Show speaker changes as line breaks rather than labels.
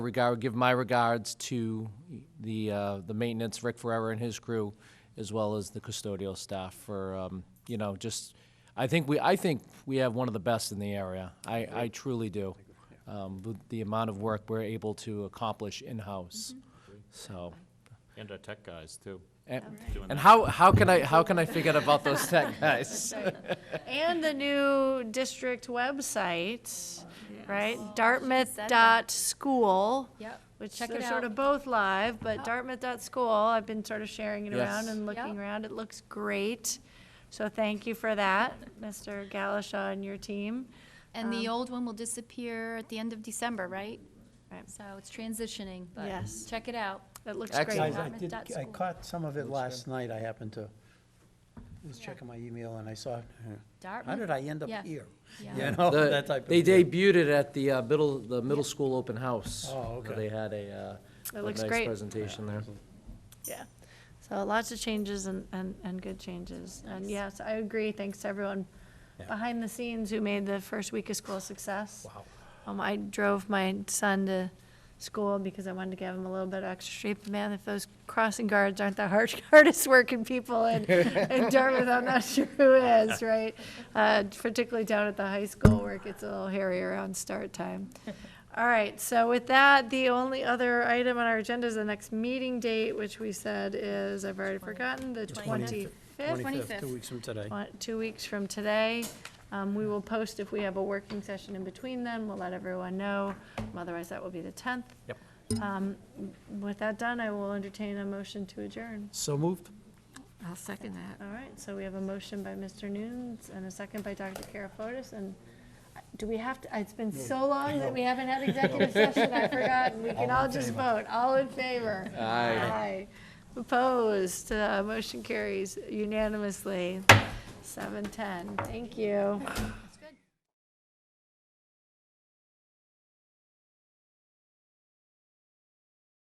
regard, give my regards to the, uh, the maintenance, Rick Ferrera and his crew, as well as the custodial staff for, um, you know, just, I think we, I think we have one of the best in the area. I, I truly do. Um, with the amount of work we're able to accomplish in-house, so.
And our tech guys, too.
And,
Doing
and
that.
how, how can I, how can I forget about those tech guys?
And the new district website, right? Dartmouth
said that.
dot school.
Yep.
Which
Check it
they're sort of
out.
both live, but Dartmouth dot school, I've been sort of sharing it around
Yes.
and looking
Oh. Yep.
around. It looks great. So thank you for that, Mr. Galasha and your team.
And the old one will disappear at the end of December, right?
Right.
So it's transitioning, but
Yes.
check it out.
It looks
Excellent.
great.
Guys, I
Dartmouth
did,
dot
I
school.
caught some of it last night, I happened to, was checking my email and I saw, uh, how
Dartmouth?
did I end up
Yeah.
here?
Yeah.
You know,
The-
that type of.
They
thing.
debuted it at the uh, middle, the middle school open house.
Oh,
where
okay.
They had a, uh,
It
a
looks
nice
great.
presentation there.
Yeah. So lots of changes and, and, and good changes. And yes, I agree. Thanks to everyone behind the scenes who made the first week of school a success. Wow. Um, I drove my son to school because I wanted to give him a little bit of extra sleep. Man, if those crossing guards aren't the hard, hardest working people in, in Dartmouth, I'm not sure who is, right? Uh, particularly down at the high school where it gets a little hairier on start time. All right, so with that, the only other item on our agenda is the next meeting date, which we said is, I've already forgotten, the
Twentieth.
twenty-fifth,
Two weeks from today.
two weeks from today. Um, we will post if we have a working session in between then, we'll let everyone know. Otherwise, that will be the tenth.
Yep.
Um, with that done, I will entertain a motion to adjourn.
So moved?
I'll second that.
All right, so we have a motion by Mr. Nunes and a second by Dr. Karafotis, and do we have to, it's been so long that we haven't had executive session, I forgot, and we can all just vote, all in favor? Aye. Opposed, Uh, motion carries unanimously, seven ten, thank you.